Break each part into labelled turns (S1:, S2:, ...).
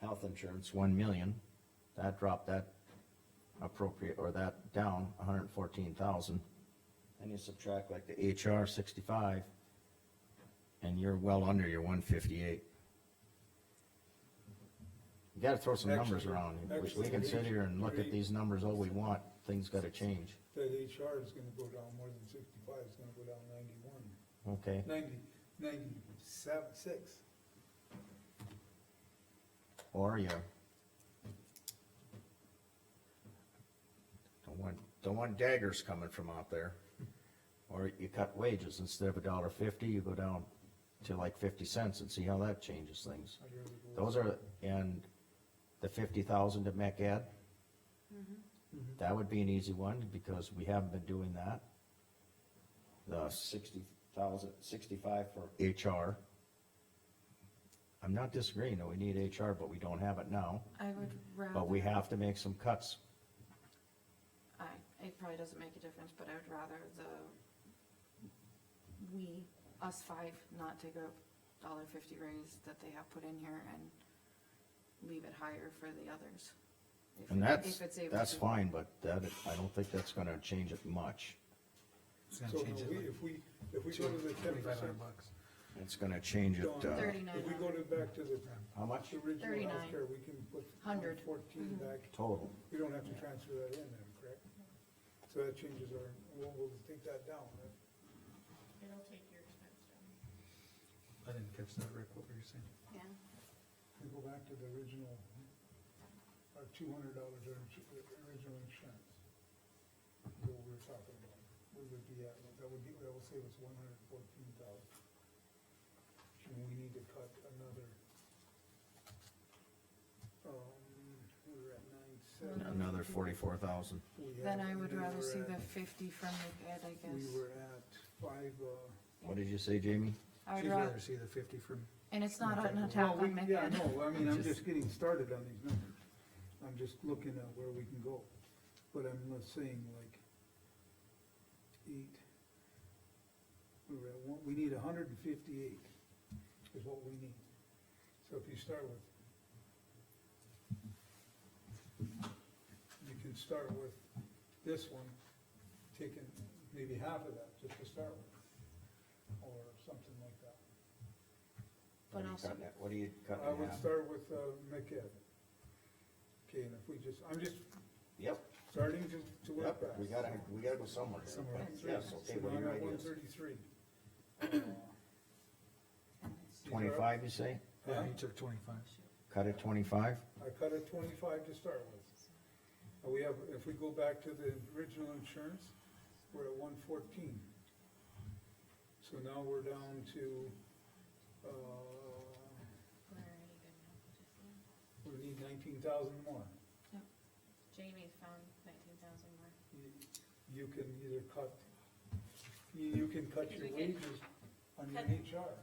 S1: health insurance, one million, that dropped that appropriate, or that down hundred and fourteen thousand. Then you subtract like the HR sixty-five, and you're well under your one fifty-eight. You gotta throw some numbers
S2: Actually,
S1: around, We- we
S2: actually,
S1: can sit here and look at
S2: actually-
S1: these numbers all we want, things gotta change,
S2: That HR is gonna go down more than sixty-five, it's gonna go down ninety-one,
S1: okay?
S2: ninety, ninety-seven, six.
S1: Or you. Don't want, don't want daggers coming from out there. Or you cut wages, instead of a dollar fifty, you go down to like fifty cents and see how that changes things.
S2: I'd rather go with-
S1: Those are, and the fifty thousand to MEC Ed,
S3: Mm-hmm.
S2: Mhm.
S1: that would be an easy one, because we haven't been doing that. The sixty thousand, sixty-five for HR. I'm not disagreeing that we need HR, but we don't have it now.
S3: I would rather.
S1: Mm. But we have to make some cuts.
S3: I, it probably doesn't make a difference, but I would rather the, we, us five, not take a dollar fifty raise that they have put in here and leave it higher for the others. If
S1: And
S3: it-
S1: that's,
S3: if it's able
S1: that's
S3: to.
S1: fine, but that, I don't think that's gonna change it much.
S4: It's gonna
S2: So no,
S4: change it
S2: we,
S4: like
S2: if we, if we
S4: two
S2: go to the
S4: hundred,
S2: ten
S4: twenty-five
S2: percent.
S4: hundred bucks.
S1: It's gonna change it, uh,
S2: If we go to, back to the,
S1: how much
S2: the original
S3: 39.
S2: healthcare, we can put
S3: Hundred.
S2: fourteen back,
S1: total?
S2: we don't have to transfer that in then, correct? So that changes our, we'll, we'll take that down, right?
S5: It'll take your expense down.
S4: I didn't catch that, Rick, what were you saying?
S3: Yeah,
S2: we go back to the original, our two hundred dollars original insurance. What we were talking about, we would be at, that would be, that would save us one hundred and fourteen thousand. And we need to cut another, um, we were at nine seven.
S1: Another forty-four thousand.
S2: We had-
S3: then I would
S2: we
S3: rather
S2: were
S3: see the
S2: at-
S3: fifty from the ed, I
S2: We
S3: guess.
S2: were at five, uh.
S1: What did you say, Jamie?
S3: I would
S4: She'd rather
S3: rather,
S4: see the fifty from,
S3: and it's not an
S4: Well,
S3: attack
S2: Well,
S3: on
S2: we-
S3: Mech
S2: Yeah,
S3: Ed.
S2: no, I mean, I'm
S3: Just-
S2: just getting started on these numbers. I'm just looking at where we can go, but I'm not saying like eight. We were at one, we need hundred and fifty-eight is what we need. So if you start with, you can start with this one, taking maybe half of that just to start with, or something like that.
S1: What
S3: But
S1: are you
S3: also-
S1: cutting it- What are you cutting
S2: I would
S1: out?
S2: start with, uh, McEd. Okay, and if we just, I'm just
S1: Yep,
S2: starting to, to work
S1: yep,
S2: back.
S1: we gotta, we gotta go somewhere. here.
S4: Somewhere.
S1: But Yes, okay, what are your
S2: One
S1: ideas?
S2: thirty-three.
S1: Twenty-five, you say?
S4: yeah, he took twenty-five.
S1: Cut it twenty-five?
S2: I cut it twenty-five to start with. And we have, if we go back to the original insurance, we're at one fourteen. So now we're down to, uh,
S5: We're already good now.
S2: we need nineteen thousand more.
S5: Jamie found nineteen thousand more.
S2: You- You can either cut, you, you can cut your
S6: We can
S2: wages on your
S6: cut-
S2: HR.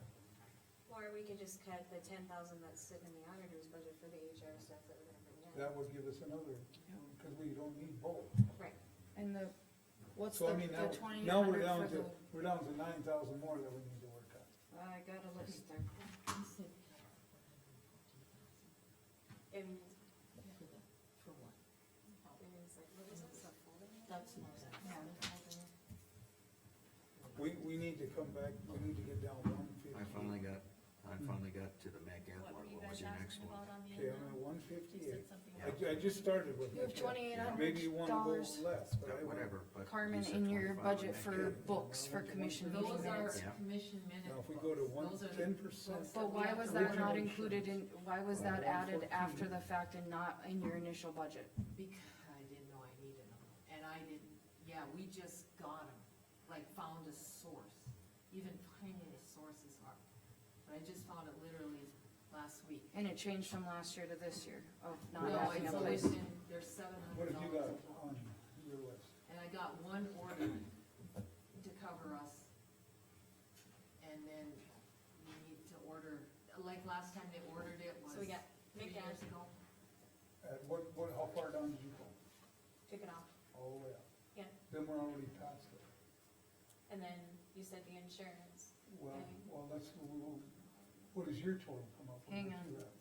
S6: Or we could just cut the ten thousand that's sitting in the auditor's budget for the HR stuff that we're gonna bring down.
S2: That would give us another, because we don't need both.
S6: Right,
S3: And the, what's the,
S2: So I mean, now,
S3: the twenty
S2: now we're
S3: hundred
S2: down
S3: for
S2: to,
S3: the,
S2: we're down to nine thousand more that we need to work on.
S3: I got a list there.
S6: and,
S7: For what?
S6: and it's like, what is this, a folding?
S7: That's not that.
S2: We, we need to come back, we need to get down one fifty.
S1: got, I
S2: finally
S1: got to the MAC Ed
S5: on the
S2: Okay, I'm at one fifty-eight.
S5: something
S1: Yeah.
S2: I, ju- I just started with.
S3: You have
S2: that.
S3: twenty-eight
S2: Maybe you wanna
S3: hundred
S2: go
S3: dollars,
S2: less, but I went-
S1: Uh, but.
S3: Carmen, in your budget for books, for commission meeting
S7: Those are
S3: minutes.
S1: Yeah.
S7: commission minutes.
S2: Now, if we go to one, ten percent,
S3: But why was that not included in, why was that added after the fact and not in your initial budget?
S7: Because I didn't know I needed them, and I didn't, yeah, we just got them, like found a source. Even finding a source is hard, but I just found it literally last week.
S3: And it changed from last year to this year of not
S7: No,
S3: having a
S7: it's
S3: place.
S7: always in, there's seven
S2: what
S7: hundred
S2: have you got
S7: dollars.
S2: on your list?
S7: And I got one order to cover us. And then we need to order, like last time they ordered it was
S6: So we got,
S7: three
S6: make
S7: years
S6: that,
S7: ago.
S2: At what, what, how far down did you go?
S6: took it off,
S2: All the way up?
S6: Yeah.
S2: Then we're already past it.
S6: and then you said the insurance.
S2: Well,
S6: Okay.
S2: well, that's, what is your total come up with?
S3: Hang
S2: Let's
S3: on.
S2: do that.